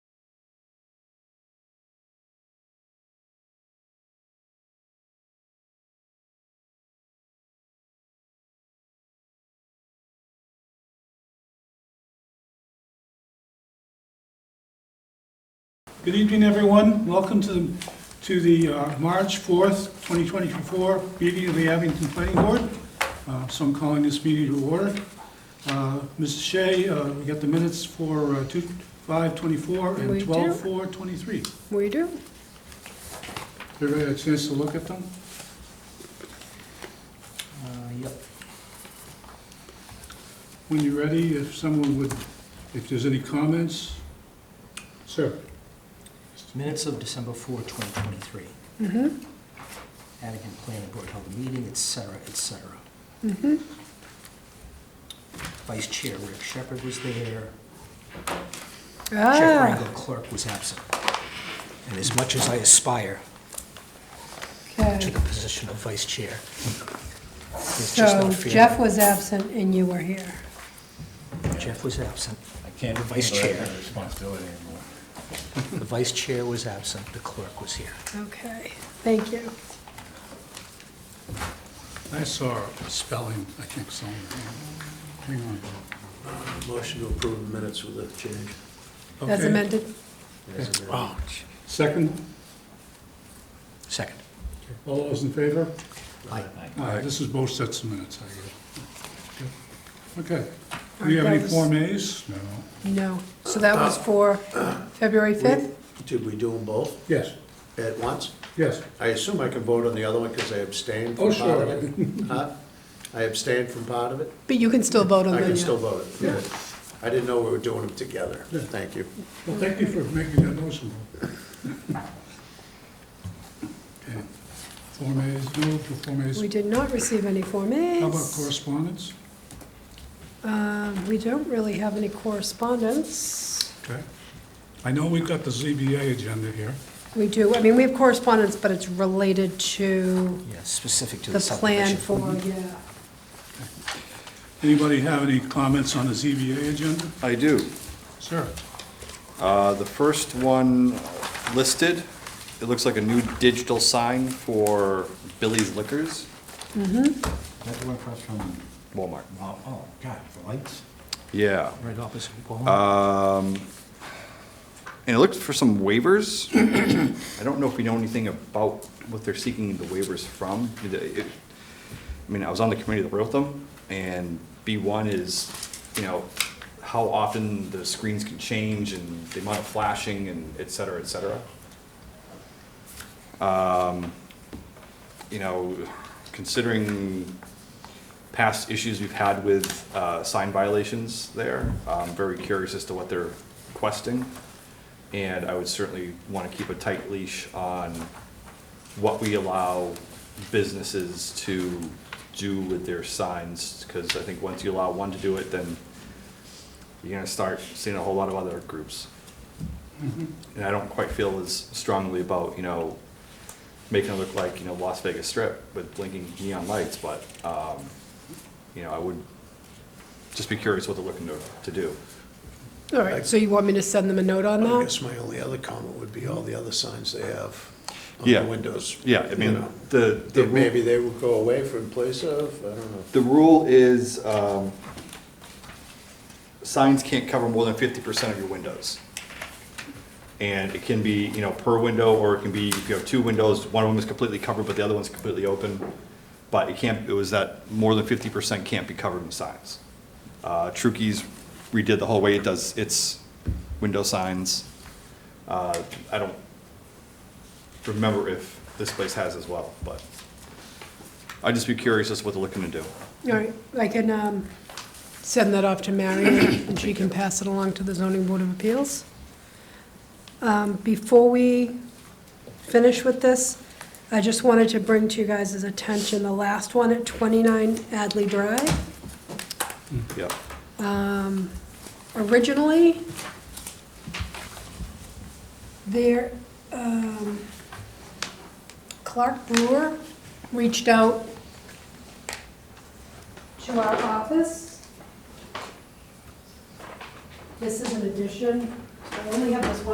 Good evening, everyone. Welcome to the, to the uh, March 4th, 2024 meeting of the Abington Planning Board. Uh, So I'm calling this meeting to order. Uh, Mrs. Shea, uh, we got the minutes for uh, 2 5:24 We and do. 12:4:23. We do. Everybody had a chance to look at them? Uh, Yep. When you're ready, if someone would, if there's any comments? Sir? Minutes of December 4, 2023. Mhm. Mm-hmm. Abington Planning Board held a meeting, et cetera, et cetera. Mm-hmm. Vice Chair Rick Shepherd was there. Jeff Ah, Rangel Clerk was absent. And as much as I aspire to okay. the position of Vice Chair, it's just So not fair. Jeff was absent and you were here. Jeff was absent. I can't The vice handle that chair. kind of Responsibility anymore. The Vice Chair was absent. The clerk was here. Okay, thank you. I saw spelling, I think, somewhere. Hang on. Motion to approve the minutes with a change. As Okay. amended, as amended. Oh, Second? Second. All those in favor? Aye. Aye, this is both sets of minutes, I guess. Okay. Do we have any Alright, that was- Form As? No. no. So that was Uh, for February 5th? Did we do them both Yes, at once? yes. I assume I can vote on the other one because I abstained Oh, from sure. part of it. Huh? I abstained from part of it? But you can still vote on I them. can yeah. still vote it. Yeah. I didn't know we were doing them together. Yeah. Thank you. Well, thank you for making that noticeable. Okay. Form As, no, for Form As. We did not receive any Form As. How about correspondence? Um, We don't really have any correspondence. Okay. I know we've got the ZBA agenda here. We do, I mean, we have correspondence, but it's related to Yes, specific to the the Mm-hmm. plan subdivision. for, yeah. Anybody have any comments on the ZBA agenda? I do. Sir? Uh, The first one listed, it looks like a new digital sign for Billy's Liquors, That's the one across from, Walmart. oh, oh, God, the lights? Yeah. Right opposite Walmart. Um, And it looked for some waivers. I don't know if we know anything about what they're seeking the waivers from. It- it- I mean, I was on the committee that wrote them, and B1 is, you know, how often the screens can change and the amount of flashing and et cetera, et cetera. Um, You know, considering past issues we've had with uh, sign violations there. I'm very curious as to what they're requesting. And I would certainly want to keep a tight leash on what we allow businesses to do with their signs. Because I think once you allow one to do it, then you're going to start seeing a whole lot of other groups. And I don't quite feel as strongly about, you know, making it look like, you know, Las Vegas Strip with blinking neon lights, but, um, you know, I would just be curious what they're looking to, to do. All right, so you want me to send them a note on I that? guess my only other comment would be all the other signs they have on Yeah. the windows. Yeah, I you mean, know. the, the, That ru- Maybe they would go away from place of, I don't know. the rule is, um, signs can't cover more than fifty percent of your windows. And it can be, you know, per window, or it can be, if you have two windows, one of them is completely covered, but the other one's completely open. But it can't, it was that more than fifty percent can't be covered in signs. Uh, Trukey's redid the whole way it does its window signs. Uh, I don't remember if this place has as well, but I'd just be curious as to what they're looking to do. All right, I can um, send that off to Marion, and she can pass it along to the zoning board of appeals. Um, Before we finish with this, I just wanted to bring to you guys' attention the last one at 29 Adley Drive. Yeah. originally, there, um, Clark Brewer reached out to our office. This is an addition, I only have this one.